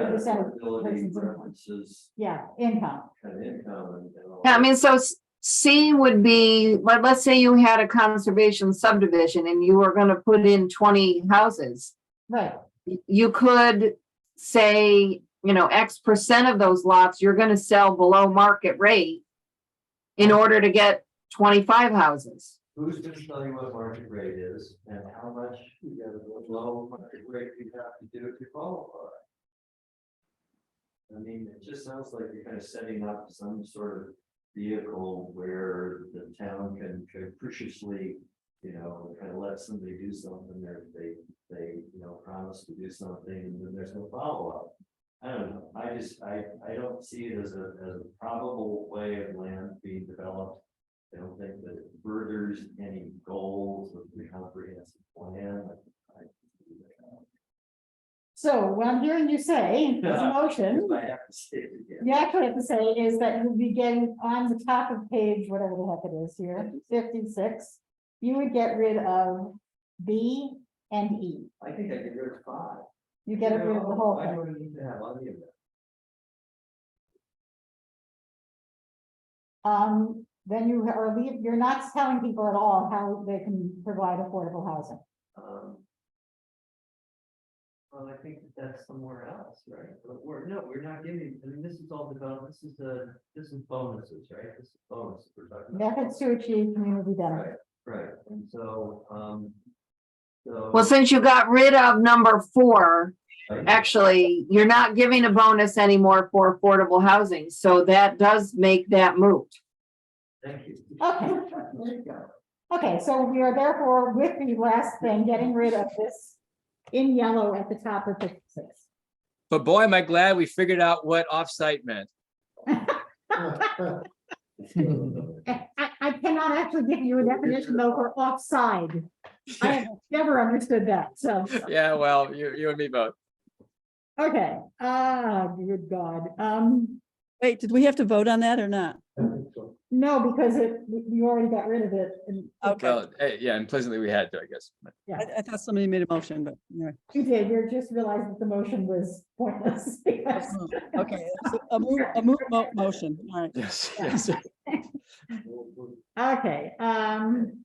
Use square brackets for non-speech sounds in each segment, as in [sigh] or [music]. percent of Ability person's income. references yeah, income, kind of income and- and. all Yeah, I that. mean, so s- C would be, but let's say you had a conservation subdivision and you were gonna put in twenty houses. right, Y- You could say, you know, X percent of those lots, you're gonna sell below market rate in order to get twenty-five houses. Who's gonna tell you what market rate is and how much you gotta go low market rate you have to do to qualify? I mean, it just sounds like you're kind of setting up some sort of vehicle where the town can capriciously. You know, kind of let somebody do something, there, they, they, you know, promise to do something, and then there's no follow up. I don't know, I just, I, I don't see it as a, as a probable way of land being developed. I don't think that it furthers any goals of the comprehensive plan. I- I- so what I'm hearing you say, this motion. I have to say it again. You actually have to say is that you'd be getting on the top of page, whatever the heck it is here, fifty-six. You would get rid of B and E. I think I could go to five. You get rid of the whole I thing. don't need to have any of that. Um, then you are leave, you're not telling people at all how they can provide affordable housing. Um, Well, I think that that's somewhere else, right? But we're, no, we're not giving, I mean, this is all developed, this is the, this is bonuses, right? This is bonus. we're talking about. Methods to achieve community benefit. Right, right, and so, um. So. Well, since you got rid of number four, actually, you're not giving a bonus anymore for affordable housing, so that does make that moot. Thank you. Okay. [laughs] There you go. Okay, so we are therefore with the last thing, getting rid of this in yellow at the top of fifty-six. But boy, am I glad we figured out what offsite meant. I, I I cannot actually give you a definition though for offside. I [laughs] have never understood that, so, Yeah, well, you, you and me both. okay, ah, good God, um, Wait, did we have to vote on that or not? no, because it, you already got rid of it. and- Okay, Well, eh, yeah, implicitly we had to, I guess. I, I thought somebody made a motion, but anyway. You did, you just realized that the motion was pointless. [laughs] because- Okay, so a move, a move, mo- motion, all right. [laughs] Yes, yes. Okay, um,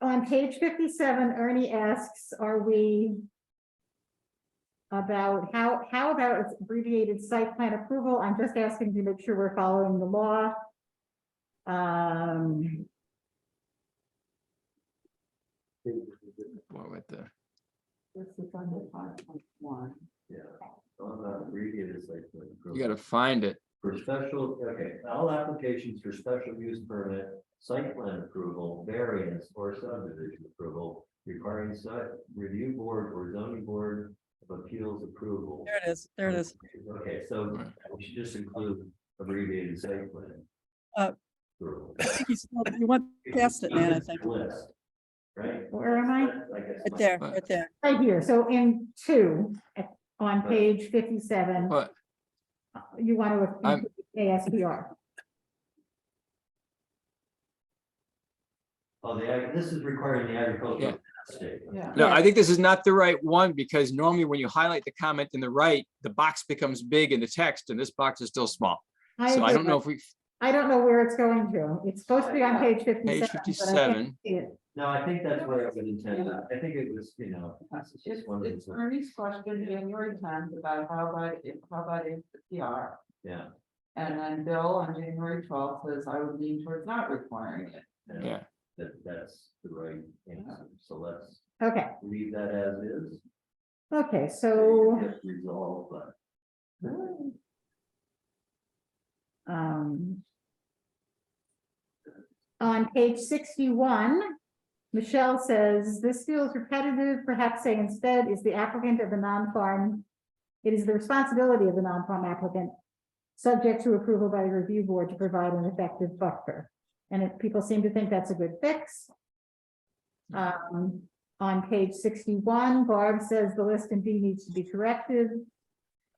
on page fifty-seven, Ernie asks, are we about how, how about it's abbreviated site plan approval? I'm just asking to make sure we're following the law. Um, What with the- Yeah, I'm not reading this like. You gotta find it. For special, okay, all applications for special use permit, site plan approval, variance or subdivision approval. Requiring site review board or zoning board of appeals approval. There it is, there it is. Okay, so we should just include abbreviated site plan. Uh, approval. I think you spelled- You went past it, man, I think. List, Right? Where am I? I guess Right my- there, right there. right here, so in two, at- on Uh, Right. page fifty-seven, But you want to uh, I'm- include ASPR. Oh, the, ag- this is requiring the Yeah. agricultural statement. Yeah. no, I think this is not the right one because normally when you highlight the comment in the right, the box becomes big in the text and this box is still small. So I agree, don't know Uh, but if we, I don't know where it's going to. It's supposed to be on page fifty-seven. Page but I can't 57. see it. No, I think that's what I would intend. I think it was, you know. It's, it's Ernie's question in your times about how about if, how about if the PR? Yeah. And then Bill on January twelfth says, I would lean towards not requiring it. yeah, That, that's the right answer. So let's Okay, leave that as is. okay, so, Get Resolved, but. um. On page sixty-one, Michelle says, this feels repetitive, perhaps say instead is the applicant of the non-farm. It is the responsibility of the non-farm applicant, subject to approval by the review board to provide an effective buffer. And if people seem to think that's a good fix. Um, on page sixty-one, Barb says the list in B needs to be corrected.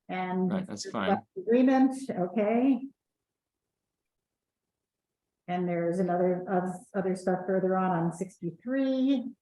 And right, that's fine. Agreement, okay. And there's another, of- other stuff further on, on sixty-three.